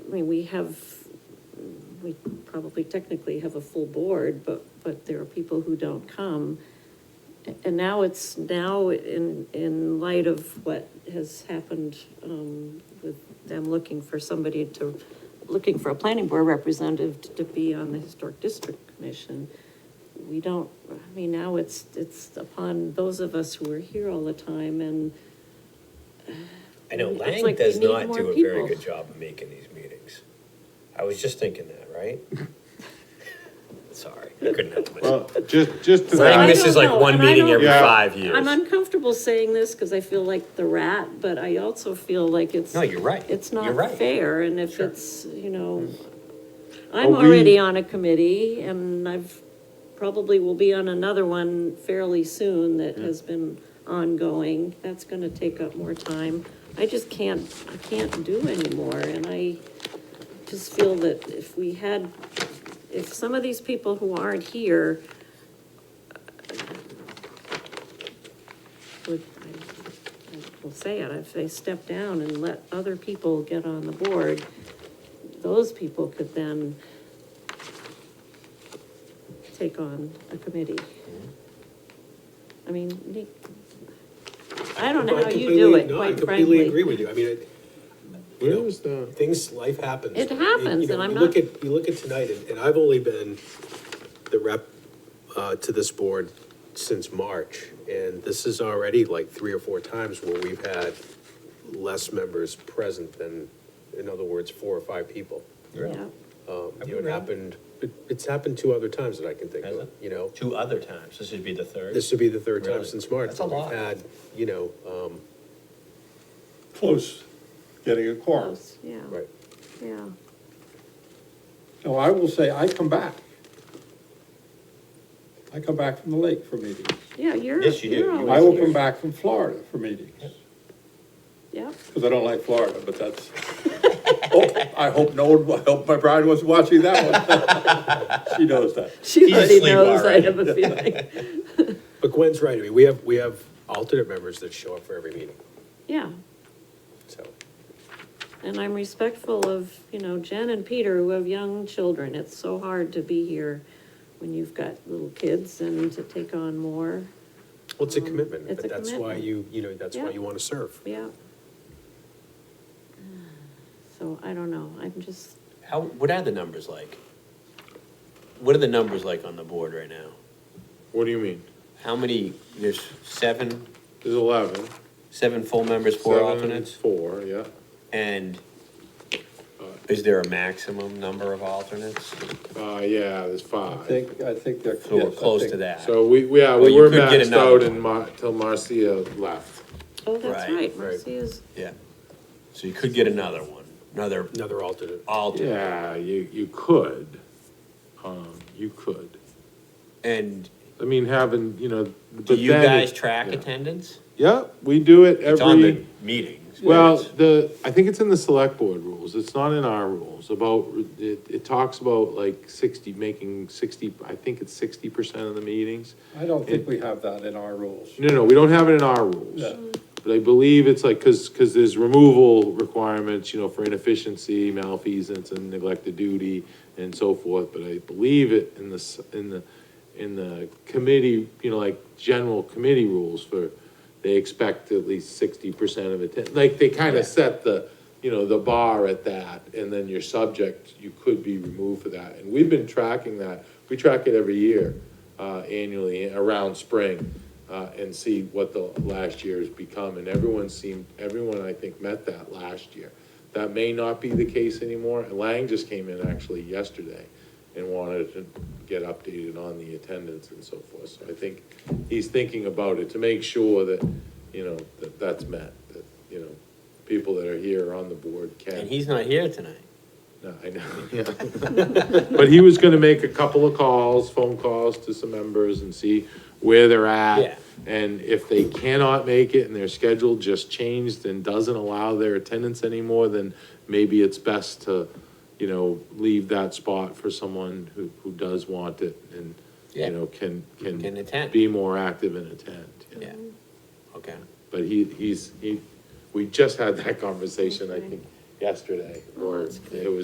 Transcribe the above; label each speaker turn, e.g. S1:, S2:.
S1: I mean, we have, we probably technically have a full board, but, but there are people who don't come. A- And now it's, now in, in light of what has happened, um, with them looking for somebody to, looking for a planning board representative to- to be on the Historic District Commission, we don't, I mean, now it's, it's upon those of us who are here all the time and,
S2: I know
S1: It's
S2: Lang
S1: like we
S2: does
S1: need
S2: not
S1: more
S2: do a very
S1: people.
S2: good job of making these meetings. I was just thinking that, right? Sorry, I couldn't help
S3: Well,
S2: myself.
S3: just, just to
S1: I
S2: Lang
S3: that,
S1: miss-
S2: misses
S1: don't
S2: like
S1: know,
S2: one
S1: and I
S2: meeting
S1: don't-
S2: every
S3: Yeah.
S2: five years.
S1: I'm uncomfortable saying this because I feel like the rat, but I also feel like it's.
S2: No, you're right.
S1: It's
S2: You're
S1: not
S2: right. Mm.
S1: fair, and if it's, you know, I'm
S3: Well, we-
S1: already on a committee, and I've, probably will be on another one fairly soon that
S2: Mm.
S1: has been ongoing. That's gonna take up more time. I just can't, I can't do anymore, and I just feel that if we had, if some of these people who aren't here uh, would, I I will say it, if they step down and let other people get on the board, those people could then take on a committee. I mean, Nick, I don't know how you do
S4: completely-
S1: it,
S4: no,
S1: quite
S4: I completely agree
S1: frankly.
S4: with you. I mean, it-
S3: where is the,
S4: things, life happens.
S1: It
S4: You-
S1: happens,
S4: you know,
S1: and I'm
S4: you
S1: not-
S4: Look at, you look at tonight, and, and I've only been the rep, uh, to this board since March. And this is already like three or four times where we've had less members present than, in other words, four or five people.
S1: Yeah.
S4: Um,
S2: Have
S4: you
S2: we
S4: know, it
S2: really?
S4: happened, it, it's happened two other times that I can think
S2: Has
S4: of,
S2: it?
S4: you know?
S2: Two other times, this would be the third.
S4: This would be the third time
S2: Really?
S4: since March.
S2: That's a
S4: that we've
S2: lot.
S4: Had, you know, um,
S3: close, getting a quorum.
S1: Close, Yeah,
S4: right.
S1: yeah.
S3: No, I will say, I come back. I come back from the lake for meetings.
S1: Yeah, you're,
S2: Yes, you do.
S1: you're
S2: You
S3: I
S1: always
S3: will
S1: here.
S3: come back from Florida for meetings,
S1: Yep.
S3: because I don't like Florida, but that's, oh, I hope no one, I hope my bride wasn't watching that one. She knows that.
S1: She
S2: He's
S1: already
S2: asleep
S1: knows, I
S2: already.
S1: have a feeling.
S4: But Gwen's right, I mean, we have, we have alternate members that show up for every meeting,
S1: Yeah,
S4: so.
S1: and I'm respectful of, you know, Jen and Peter who have young children. It's so hard to be here when you've got little kids and to take on more.
S4: Well, it's a commitment,
S1: Mm, it's
S4: but
S1: a
S4: that's why
S1: commitment.
S4: you, you know, that's
S1: Yeah.
S4: why you want to serve.
S1: Yeah. So I don't know, I'm just,
S2: How, what are the numbers like? What are the numbers like on the board right now?
S5: What do you mean?
S2: How many, there's seven,
S5: There's eleven.
S2: seven full members, four
S5: seven,
S2: alternates?
S5: Four, yeah.
S2: And is there a maximum number of alternates?
S5: Uh, yeah, there's
S3: I
S5: five.
S3: think, I think that.
S2: So
S3: yes,
S2: we're
S3: I
S2: close to
S3: think-
S2: that.
S5: So we, we- yeah,
S2: Well,
S5: we
S2: you
S5: were
S2: could get
S5: maxed
S2: another
S5: out in Mar, till Marcia left.
S1: oh, that's
S2: Right,
S1: right,
S2: right.
S1: Marcia's,
S2: Yeah. So you could get another one, another
S4: Another alternate.
S2: alternate.
S5: Yeah, you, you could. Um, you could.
S2: And
S5: I mean, having, you know, but
S2: do
S5: then.
S2: you guys
S5: it-
S2: track
S5: yeah.
S2: attendance?
S5: Yeah, we do it every.
S2: It's on the meetings. but
S5: Well,
S2: it's-
S5: the, I think it's in the select board rules, it's not in our rules, about, it, it talks about like sixty, making sixty, I think it's sixty percent of the meetings.
S3: I don't think we have that in our rules.
S5: No, no, we don't have it in our rules.
S3: Yeah.
S5: But I believe it's like, cause, cause there's removal requirements, you know, for inefficiency, malfeasance and neglected duty and so forth, but I believe it in the, s- in the, in the committee, you know, like general committee rules for, they expect at least sixty percent of attend, like, they
S2: Yeah.
S5: kinda set the, you know, the bar at that, and then your subject, you could be removed for that, and we've been tracking that, we track it every year, uh, annually, around spring, uh, and see what the last year has become, and everyone seemed, everyone, I think, met that last year. That may not be the case anymore, and Lang just came in actually yesterday and wanted to get updated on the attendance and so forth, so I think he's thinking about it to make sure that, you know, that that's met, that, you know, people that are here are on the board can.
S2: And he's not here tonight.
S5: No, I know, yeah. But he was gonna make a couple of calls, phone calls to some members and see where they're
S2: Yeah.
S5: at. And if they cannot make it and their schedule just changed and doesn't allow their attendance anymore, then maybe it's best to, you know, leave that spot for someone who, who does want it and,
S2: Yeah.
S5: you know, can, can.
S2: Can attend.
S5: Be more active and attend, yeah.
S2: Yeah. Okay.
S5: But he, he's, he, we just had that conversation, I think, yesterday, or
S1: Oh, that's good.
S5: it was